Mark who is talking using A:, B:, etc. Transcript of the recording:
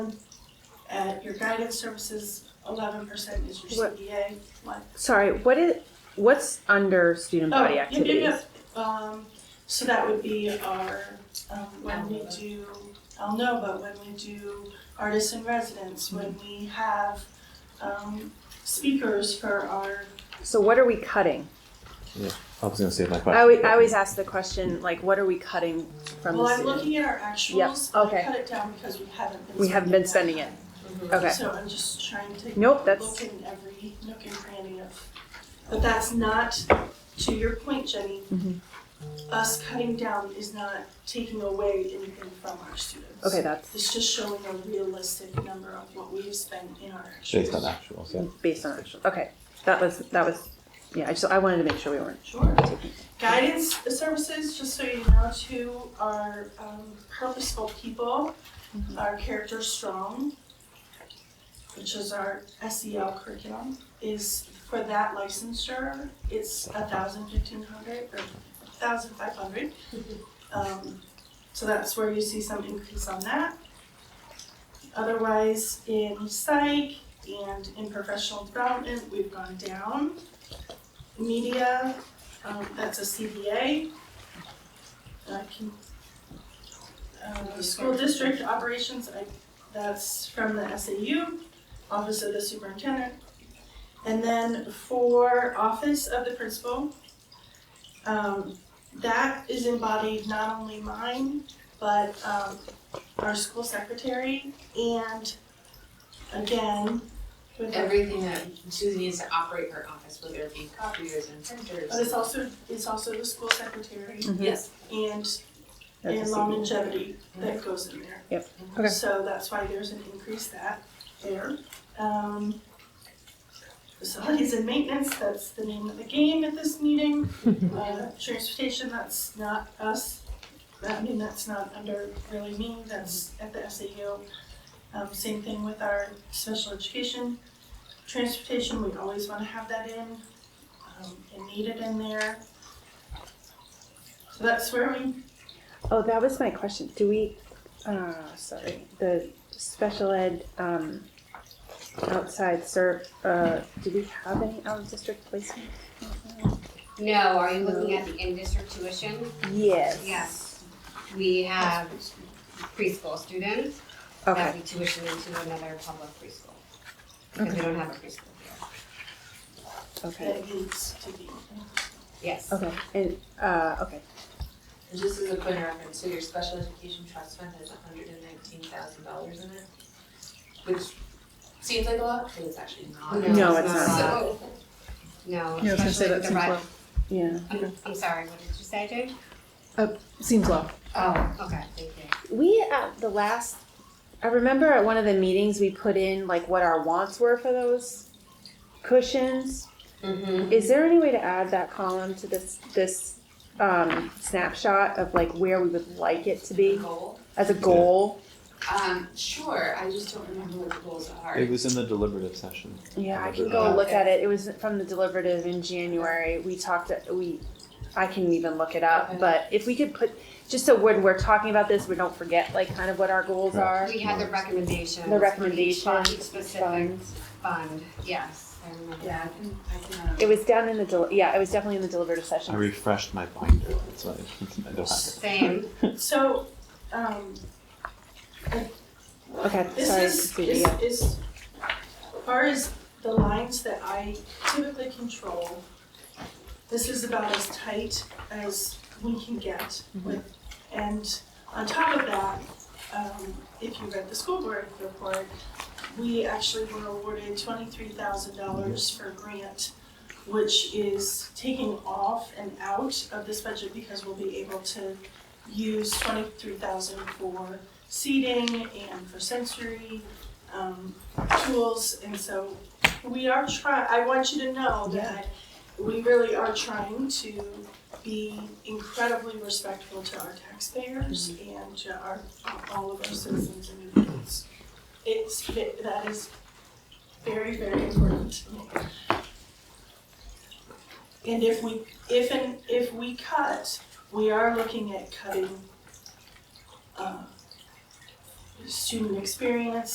A: At your guidance services, eleven percent is your
B: What-
A: CDA. What?
B: Sorry, what is what's under student
A: Oh,
B: body
A: yeah, yeah,
B: activities?
A: yeah. Um, so that would be our, um, when we do, I'll know, but when we do artists in residence, when
B: Mm-hmm.
A: we have, um, speakers for our,
B: So what are we cutting?
C: I was gonna say my question.
B: I always, I always ask the question like, what are we cutting from
A: well,
B: the
A: I'm
B: student?
A: looking at our actuals. but I
B: okay.
A: Cut it down because we haven't been.
B: We haven't been spending
A: that.
B: it. Okay,
A: So I'm just trying to.
B: Nope, that's-
A: Look in every nook and cranny of, but that's not, to your point, Jenny,
B: Mhm.
A: us cutting down is not taking away anything from our students.
B: okay, that's
A: It's just showing a realistic number of what we've spent in our actuals.
C: Based on actuals, yeah.
B: based on actual. Okay, that was that was yeah. I just I wanted to make sure we weren't.
A: Sure. Guidance services, just so you know, too, are um, purposeful people, our character strong, which is our SEL curriculum, is for that licensure, it's a thousand fifteen hundred or thousand five hundred. Um, so that's where you see some increase on that. Otherwise, in psych and in professional development, we've gone down. Media, um, that's a CBA. I can, uh, school district operations, I, that's from the SAU, Office of the Superintendent. And then for Office of the Principal, um, that is embodied not only mine, but, um, our school secretary and again, with the
D: Everything that Susie needs to operate her office, whether it be copiers and printers.
A: But it's also, it's also the school secretary
D: Yes.
A: and,
B: That's a
A: and
B: CBA.
A: longevity that goes in there.
B: Yep. Okay.
A: So that's why there's an increase that there. Um, facilities and maintenance, that's the name of the game at this meeting. Uh, transportation, that's not us. I mean, that's not under really me, that's at the SAU. Um, same thing with our special education. Transportation, we always wanna have that in, um, and need it in there. So that's where we
B: Oh, that was my question. Do we? Uh, sorry, the special ed um, outside serve. Uh, do we have any out of district placement?
E: No, are you looking at the in-district tuition?
B: Yes.
E: Yes. We have preschool students
B: Okay.
E: that we tuition into another public preschool. Because we don't have a preschool here.
B: Okay.
A: that needs to be.
E: Yes.
B: Okay. And uh, okay.
D: And just as a point of reference, so your special education trust fund has hundred and nineteen thousand dollars in it, which seems like a lot, but it's actually not.
B: No, it's not.
E: So, no,
F: Yeah, I was gonna say
E: especially
F: that
E: with the
F: seems low.
E: ri-
B: Yeah.
E: I'm, I'm sorry, what did you say, Jane?
F: Uh, Seems low.
E: Oh, okay, thank you.
B: We at the last, I remember at one of the meetings we put in like what our wants were for those cushions.
E: Mm-hmm.
B: Is there any way to add that column to this this um, snapshot of like where we would like it to be
D: Goal,
B: as a goal?
D: um, sure, I just don't remember what the goals are.
C: It was in the deliberative session.
B: Yeah, I can go look at it. It was from the deliberative in January. We talked. We, I can even look it up. But if we could put just so when we're talking about this, we don't forget like kind of what our goals are.
E: We had the recommendations.
B: The
E: for each fund,
B: recommendations,
E: Each specific
B: funds.
E: fund, yes, I remember.
D: Yeah, I can, I can, uh,
B: It was down in the del- yeah. It was definitely in the deliberative session.
C: I refreshed my binder. That's why I don't have
E: Same,
A: So, um,
B: Okay,
A: this
B: sorry.
A: is,
B: Katie,
A: is,
B: yeah.
A: is, as far as the lines that I typically control, this is about as tight as we can get with, and on top of that, um, if you read the school board report, we actually were awarded twenty-three thousand dollars for a grant, which is taking off and out of this budget because we'll be able to use twenty-three thousand for seating and for sensory um, tools, and so we are try. I want you to know that we really are trying to be incredibly respectful to our taxpayers and to our all of our citizens and individuals. It's it, that is very very important to me. And if we if and if we cut, we are um, looking at cutting. Uh, student experience